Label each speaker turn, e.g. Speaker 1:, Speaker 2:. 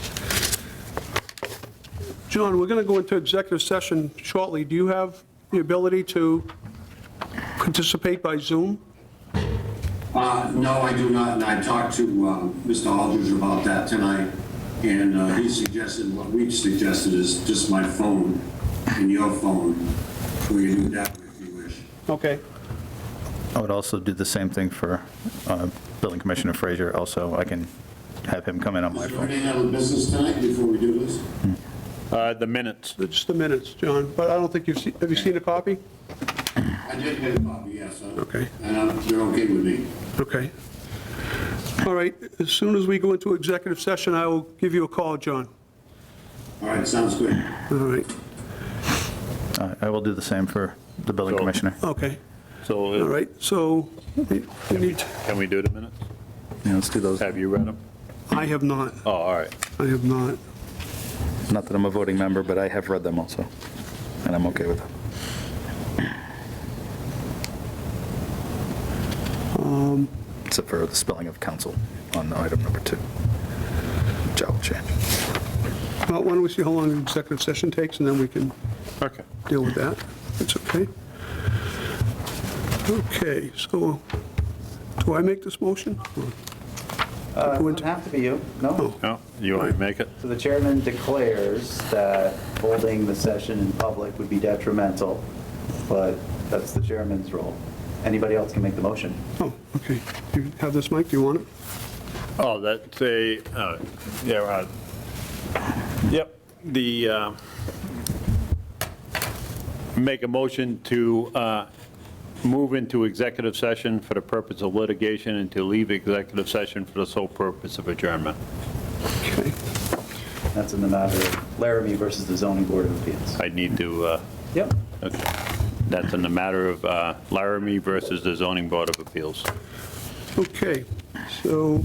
Speaker 1: John, we're going to go into executive session shortly. Do you have the ability to participate by Zoom?
Speaker 2: Uh, No, I do not, and I talked to um, Mr. Aldridge about that tonight, and uh, he suggested, what we suggested is just my phone and your phone, we can do that if you wish.
Speaker 1: Okay.
Speaker 3: I would also do the same thing for uh, Building Commissioner Frazier also. I can have him come in on my
Speaker 2: Is there
Speaker 3: phone.
Speaker 2: any other business tonight before we do this?
Speaker 4: Uh, The minutes.
Speaker 1: Just the minutes, John, but I don't think you've seen, have you seen a copy?
Speaker 2: I did get a copy, yes. uh,
Speaker 1: Okay.
Speaker 2: And uh, they're okay with me.
Speaker 1: Okay. All right, as soon as we go into executive session, I will give you a call, John.
Speaker 2: All right, sounds good.
Speaker 1: All right,
Speaker 3: Uh, I will do the same for the Building
Speaker 4: So-
Speaker 3: Commissioner.
Speaker 1: okay, all
Speaker 4: So uh,
Speaker 1: right, so we we need,
Speaker 4: can we do the minutes?
Speaker 3: Yeah, let's do those.
Speaker 4: Have you read them?
Speaker 1: I have not,
Speaker 4: Oh, all right.
Speaker 1: I have not.
Speaker 3: Not that I'm a voting member, but I have read them also, and I'm okay with them. Except for the spelling of council on item number two, which I will change.
Speaker 1: Well, why don't we see how long the executive session takes, and then we can
Speaker 4: Okay.
Speaker 1: deal with that. That's okay. Okay, so, do I make this motion?
Speaker 5: Uh, It
Speaker 1: Would-
Speaker 5: doesn't have to be you, no.
Speaker 4: No, you want me to make it?
Speaker 5: So the chairman declares that holding the session in public would be detrimental, but that's the chairman's role. Anybody else can make the motion.
Speaker 1: Oh, okay, do you have this, Mike, do you want it?
Speaker 4: Oh, that's a, uh, yeah, right. Yep, the, uh, make a motion to uh, move into executive session for the purpose of litigation and to leave executive session for the sole purpose of adjournment.
Speaker 1: Okay,
Speaker 5: That's in the matter of Laramie versus the zoning board of appeals.
Speaker 4: I need to, uh,
Speaker 5: Yep.
Speaker 4: okay. That's in the matter of uh, Laramie versus the zoning board of appeals.
Speaker 1: okay, so